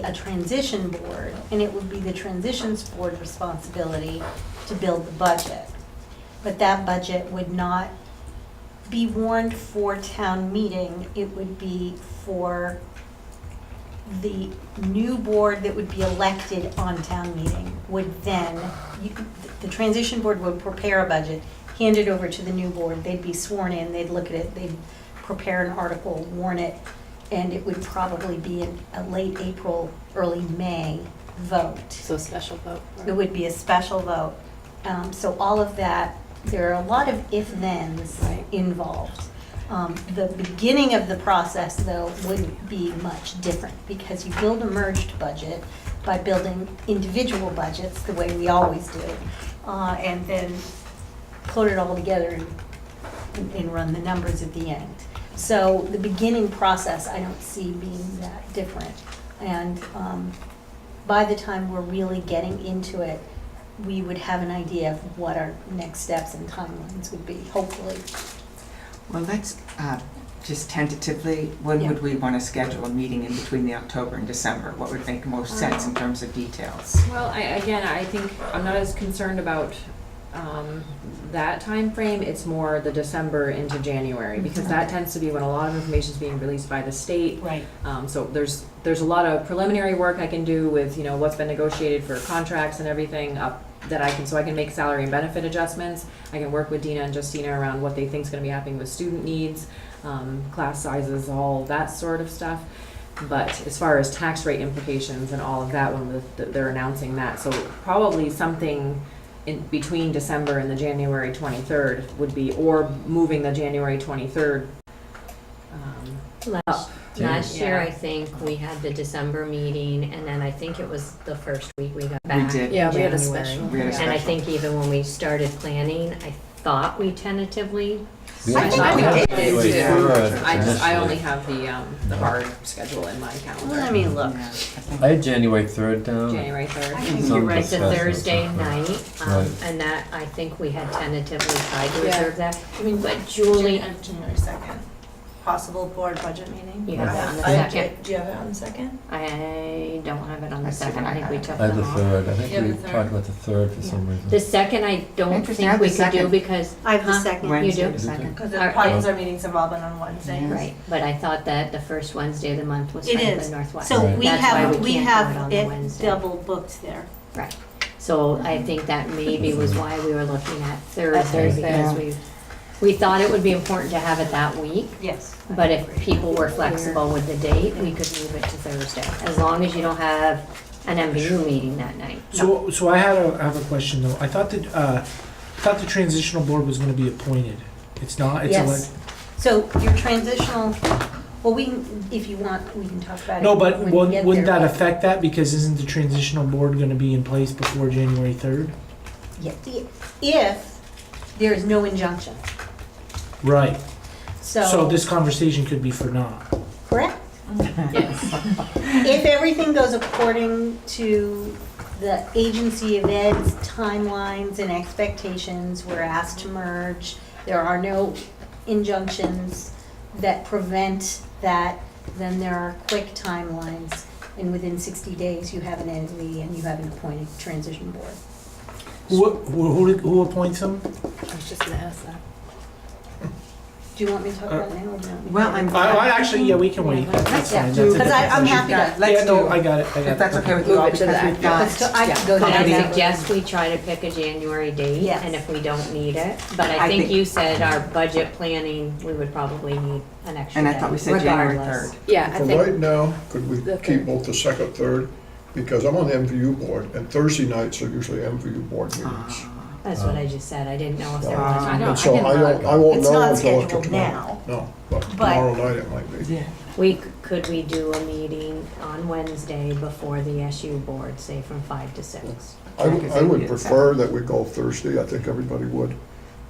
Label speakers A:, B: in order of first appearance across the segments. A: a transition board, and it would be the transitions board responsibility to build the budget. But that budget would not be warned for town meeting, it would be for the new board that would be elected on town meeting would then, you could, the transition board would prepare a budget, hand it over to the new board, they'd be sworn in, they'd look at it, they'd prepare an article, warn it, and it would probably be in a late April, early May vote.
B: So special vote.
A: It would be a special vote. Um, so all of that, there are a lot of if-thens
B: Right.
A: involved. Um, the beginning of the process, though, wouldn't be much different because you build a merged budget by building individual budgets the way we always do, uh, and then put it all together and, and run the numbers at the end. So the beginning process, I don't see being that different. And um, by the time we're really getting into it, we would have an idea of what our next steps and timelines would be, hopefully.
C: Well, let's, uh, just tentatively, when would we want to schedule a meeting in between the October and December? What would make most sense in terms of details?
B: Well, I, again, I think I'm not as concerned about um, that timeframe. It's more the December into January because that tends to be when a lot of information is being released by the state.
A: Right.
B: Um, so there's, there's a lot of preliminary work I can do with, you know, what's been negotiated for contracts and everything up that I can, so I can make salary and benefit adjustments. I can work with Dina and Justina around what they think's gonna be happening with student needs, um, class sizes, all that sort of stuff. But as far as tax rate implications and all of that, when the- they're announcing that, so probably something in between December and the January twenty-third would be, or moving the January twenty-third. Um,
D: Last,
E: Yeah.
D: last year,
B: Yeah.
D: I think, we had the December meeting, and then I think it was the first week we got
C: We
D: back.
C: did,
B: Yeah, we had a
D: January.
B: special.
C: We had a
D: And I
C: special.
D: think even when we started planning, I thought we tentatively,
B: I think
A: I
B: we
A: did
B: did
C: do.
B: I just, I only have the, um, the hard schedule in my
A: Let
B: calendar,
A: me look.
C: Yeah, I think-
E: I had January third down.
B: January third.
A: I
D: you're
E: Some
D: right, the
E: discussion or
D: Thursday
E: something.
D: night, um,
E: Right.
D: and that, I think we had tentatively tried to
B: Yeah.
D: reserve that. I mean, but Julie,
F: Jan- uh, January second, possible board budget meeting?
D: Yeah,
F: Uh,
D: on the
F: I-
D: second.
F: Do you have it on the second?
D: I don't have it on
C: I
D: the
C: see
D: second,
C: what I
D: I think we
C: had.
D: took
E: I had
D: them
E: the
D: off.
E: third, I
F: Yeah,
E: think we
F: the third.
E: talked about the third for some reason.
D: The second, I don't
C: Interesting, I
D: think
C: have
D: we
C: the
D: could do
C: second.
D: because,
A: I have the
D: Huh?
A: second.
D: You
C: Wednesday
D: do?
C: the second.
F: Cause the
D: Alright.
F: Parkinson's meetings have all been on Wednesdays.
C: Yeah.
D: right, but I thought that the first Wednesday of the month was
A: It
D: Franklin
A: is.
D: Northwest.
A: So
E: Right.
A: we
D: That's why
A: have,
D: we
A: we
D: can't do it on
A: have
D: the
A: it
D: Wednesday.
A: double booked there.
D: Right, so I think that maybe was why we were looking at Thursday,
B: Thursday.
D: because we, we thought it would be important to have it that week,
A: Yes.
D: but if people were flexible with the date, we could move it to Thursday, as long as you don't have an MBU meeting that night.
G: So, so I had a, I have a question though. I thought that, uh, I thought the transitional board was gonna be appointed. It's not, it's
A: Yes.
G: elect.
A: So your transitional, well, we, can- if you want, we can talk about it.
G: No, but
A: when we
G: wouldn't,
A: get
G: wouldn't
A: there,
G: that
A: but-
G: affect that? Because isn't the transitional board gonna be in place before January third?
A: Yeah, i- If there is no injunction,
G: Right.
A: so.
G: So this conversation could be for naught.
A: Correct? If everything goes according to the agency of ed's timelines and expectations, we're asked to merge, there are no injunctions that prevent that, then there are quick timelines, and within 60 days, you have an entity and you have an appointed transition board.
G: Who, who, who- who appoints them?
B: I was just gonna ask that.
A: Do you want me to talk about it now or do you want me to-
C: Well, I'm,
G: I, I actually, yeah, we can wait. That's
A: Yeah,
G: fine. That's a
A: Because I- I'm
G: different
A: happy
G: issue.
A: to,
G: Yeah,
C: let's
G: no, I
C: do,
G: got it, I got it.
C: if that's okay with you
B: Move
C: all,
B: it to the
C: because we've
B: act-
C: got.
A: let's do- I
B: Yeah.
A: can go
D: And
A: down
D: I
A: that
D: suggest we try to pick a January date,
A: Yes.
D: and if we don't need it, but
C: I
D: I think
C: think-
D: you said our budget planning, we would probably need an extra
C: And
D: day.
C: I thought we said January
D: regardless.
C: third.
B: Yeah, I
H: For
B: think,
H: right now, could we
B: The
H: keep
B: third.
H: both the second, third? Because I'm on the MVU board, and Thursday nights are usually MVU board meetings.
D: That's what I just said, I didn't know if there
H: Ah.
D: was.
B: I know,
H: And
B: I
H: so
B: can
H: I
B: look.
H: don't, I won't
A: It's
H: know
A: not
H: until after
A: scheduled
H: tomorrow. No, but
A: But-
H: tomorrow night it might be.
C: Yeah,
D: We, c- could we do a meeting on Wednesday before the SU board, say from five to six?
H: I,
C: Yeah, 'cause
H: I
C: they
H: would
C: get
H: prefer
C: seven.
H: that we go Thursday, I think everybody would.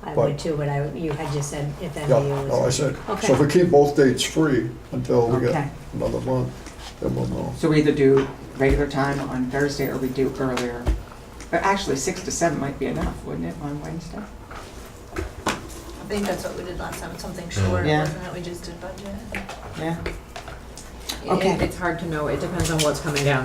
D: I
H: But-
D: would too, but I, you had just said if
H: Yeah,
D: MBU
H: no, I
D: was.
H: said, so
D: Okay.
H: if we keep both dates free until Oh, we
C: Okay.
H: get another month, then we'll know.
C: so we either do regular time on Thursday or we do earlier. But actually, six to seven might be enough, wouldn't it, on Wednesday?
F: I think that's what we did last time, something short,
C: Yeah.
F: wasn't it? We just did budget.
C: Yeah.
B: it-
C: Okay.
B: It's hard to know, it depends on what's coming down.